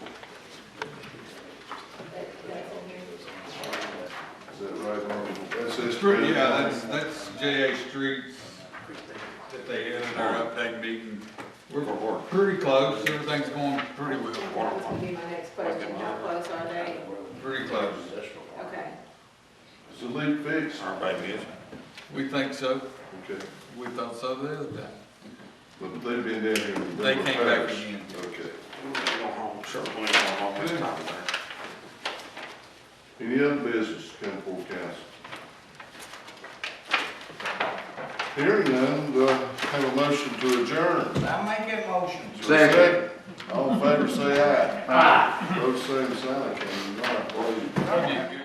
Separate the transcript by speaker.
Speaker 1: pretty, yeah, that's, that's J A Street's, if they had their update meeting. We're pretty close, everything's going pretty
Speaker 2: That was
Speaker 1: well,
Speaker 2: gonna be my next question, how close are they?
Speaker 1: pretty close.
Speaker 2: Okay.
Speaker 3: Is the leak fixed?
Speaker 4: Everybody busy?
Speaker 1: We think so,
Speaker 3: Okay,
Speaker 1: we thought so the other day.
Speaker 3: but they've been down here. with
Speaker 1: They came back
Speaker 3: repairs.
Speaker 1: again.
Speaker 3: Okay.
Speaker 4: Sure, we ain't gonna walk this time there.
Speaker 3: Any other business to come before council? Hearing none, do I have a motion to adjourn?
Speaker 5: I make a motion.
Speaker 3: Is there a All in favor, say aye. Aye. Those same sign, come on, please.
Speaker 1: You- you-